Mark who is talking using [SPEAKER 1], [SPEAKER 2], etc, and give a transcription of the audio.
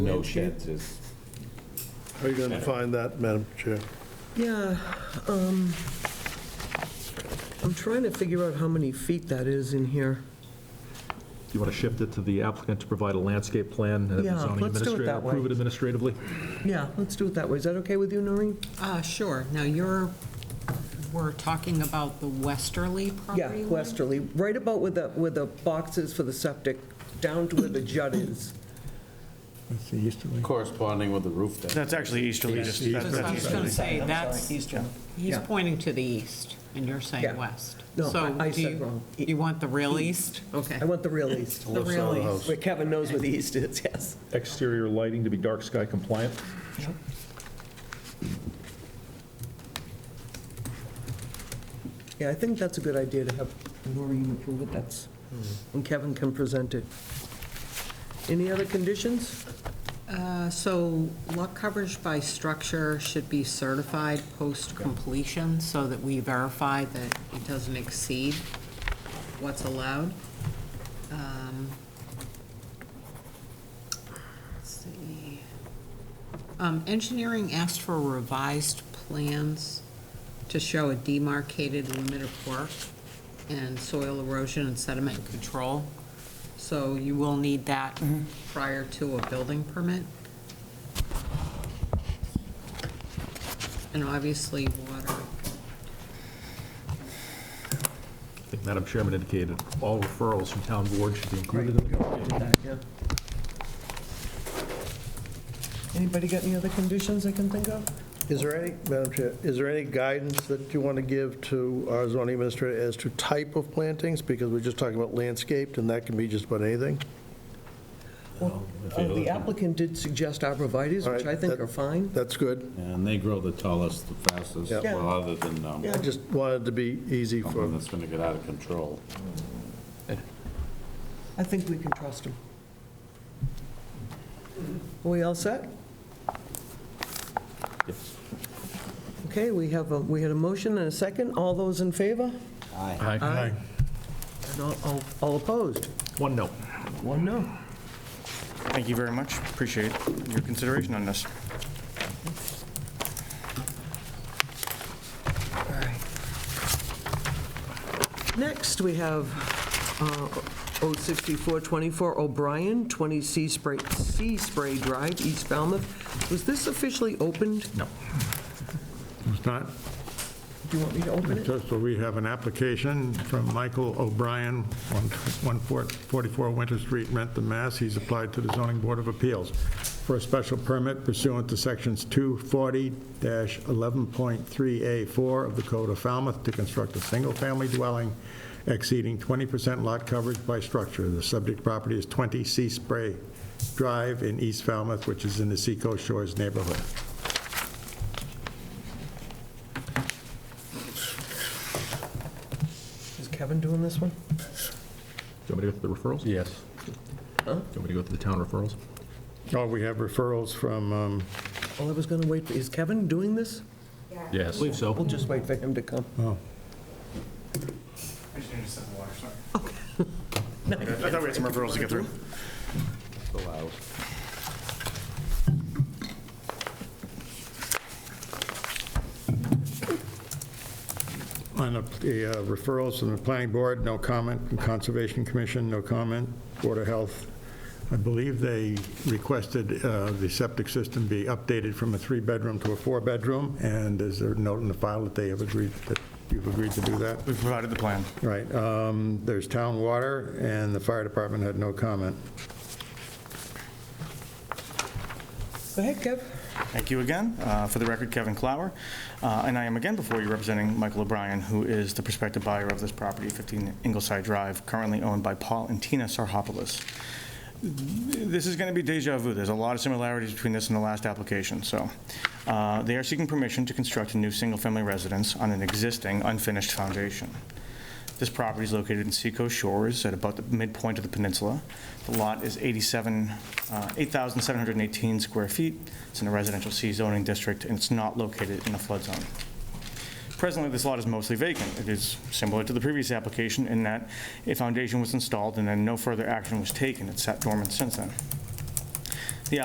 [SPEAKER 1] no sheds is,
[SPEAKER 2] How are you going to find that, Madam Chair?
[SPEAKER 3] Yeah, um, I'm trying to figure out how many feet that is in here.
[SPEAKER 4] You want to shift it to the applicant to provide a landscape plan and
[SPEAKER 3] Yeah,
[SPEAKER 4] the zoning
[SPEAKER 3] let's do it
[SPEAKER 4] administrator
[SPEAKER 3] that way.
[SPEAKER 4] approve it administratively?
[SPEAKER 3] Yeah, let's do it that way. Is that okay with you, Noreen?
[SPEAKER 5] Uh, sure. Now, you're, we're talking about the westerly property
[SPEAKER 3] Yeah,
[SPEAKER 5] line?
[SPEAKER 3] westerly, right about where the, where the box is for the septic, down to where the jut is.
[SPEAKER 6] That's the easterly.
[SPEAKER 1] corresponding with the roof deck.
[SPEAKER 7] That's actually easterly, just.
[SPEAKER 5] That's what I was going to say, that's,
[SPEAKER 3] Eastern.
[SPEAKER 5] he's
[SPEAKER 3] Yeah.
[SPEAKER 5] pointing to the east, and you're
[SPEAKER 3] Yeah.
[SPEAKER 5] saying west.
[SPEAKER 3] No,
[SPEAKER 5] So
[SPEAKER 3] I- I
[SPEAKER 5] do
[SPEAKER 3] said
[SPEAKER 5] you-
[SPEAKER 3] wrong. E-
[SPEAKER 5] You want the real east? Okay.
[SPEAKER 3] I want the real east,
[SPEAKER 5] The real east.
[SPEAKER 3] where Kevin knows where the east is, yes.
[SPEAKER 4] Exterior lighting to be dark sky compliant?
[SPEAKER 3] Yeah, I think that's a good idea to have Noreen approve it, that's, and Kevin can present it. Any other conditions?
[SPEAKER 5] Uh, So lot coverage by structure should be certified post-completion so that we verify that it doesn't exceed what's allowed. Um, let's see. Um, Engineering asked for revised plans to show a demarcated limit of work and soil erosion and sediment control. So you will need that prior to a building permit. And obviously, water.
[SPEAKER 4] I think Madam Chairman indicated all referrals from town board should be included in the...
[SPEAKER 3] Anybody got any other conditions I can think of?
[SPEAKER 2] Is there any, Madam Chair, is there any guidance that you want to give to our zoning administrator as to type of plantings? Because we're just talking about landscaped, and that can be just about anything.
[SPEAKER 3] Uh, The applicant did suggest arborvitae's,
[SPEAKER 2] All
[SPEAKER 3] which I
[SPEAKER 2] right,
[SPEAKER 3] think
[SPEAKER 2] that-
[SPEAKER 3] are fine.
[SPEAKER 2] That's good.
[SPEAKER 1] And they grow the tallest, the fastest,
[SPEAKER 2] Yeah.
[SPEAKER 1] well, other than, um,
[SPEAKER 2] I just wanted to be easy
[SPEAKER 1] something
[SPEAKER 2] for,
[SPEAKER 1] that's gonna get out of control.
[SPEAKER 3] I think we can trust him. Are we all set?
[SPEAKER 4] Yes.
[SPEAKER 3] Okay, we have, a we had a motion and a second. All those in favor?
[SPEAKER 4] Aye.
[SPEAKER 3] And all- all- all opposed?
[SPEAKER 4] One no.
[SPEAKER 3] One no.
[SPEAKER 7] Thank you very much. Appreciate your consideration on this.
[SPEAKER 3] All right. Next, we have uh, 06424 O'Brien, 20 Sea Spray, Sea Spray Drive, East Falmouth. Was this officially opened?
[SPEAKER 4] No.
[SPEAKER 6] It's not,
[SPEAKER 3] Do you want me to open it?
[SPEAKER 6] so we have an application from Michael O'Brien, 144 Winter Street, Rentham, Mass. He's applied to the zoning board of appeals for a special permit pursuant to sections 240-11.3A4 of the Code of Falmouth to construct a single-family dwelling exceeding 20% lot coverage by structure. The subject property is 20 Sea Spray Drive in East Falmouth, which is in the Seacoast Shores neighborhood.
[SPEAKER 3] Is Kevin doing this one?
[SPEAKER 4] Do you want me to go through the referrals? Yes. Do you want me to go through the town referrals?
[SPEAKER 6] Oh, we have referrals from, um,
[SPEAKER 3] Well, I was going to wait, is Kevin doing this?
[SPEAKER 4] Yes. Believe
[SPEAKER 3] We'll
[SPEAKER 4] so.
[SPEAKER 3] just wait for him to come.
[SPEAKER 6] oh,
[SPEAKER 7] I just need to sip of water, sorry. I thought we had some referrals to get through.
[SPEAKER 6] on the the, uh, referrals from the planning board, no comment, from Conservation Commission, no comment, Board of Health. I believe they requested uh, the septic system be updated from a three-bedroom to a four-bedroom, and is there a note in the file that they have agreed, that you've agreed to do that?
[SPEAKER 7] We've provided the plan.
[SPEAKER 6] Right, um, there's town water, and the fire department had no comment.
[SPEAKER 3] Go ahead, Kev.
[SPEAKER 7] Thank you again. Uh, For the record, Kevin Clower. Uh, And I am again before you representing Michael O'Brien, who is the prospective buyer of this property, 15 Ingleside Drive, currently owned by Paul and Tina Sarhopoulos. This is going to be deja vu. There's a lot of similarities between this and the last application, so. uh, They are seeking permission to construct a new single-family residence on an existing unfinished foundation. This property is located in Seacoast Shores at about the midpoint of the peninsula. The lot is 87, uh, 8,718 square feet. It's in a residential C zoning district, and it's not located in a flood zone. Presently, this lot is mostly vacant. It is similar to the previous application in that a foundation was installed and then no further action was taken. It's sat dormant since then.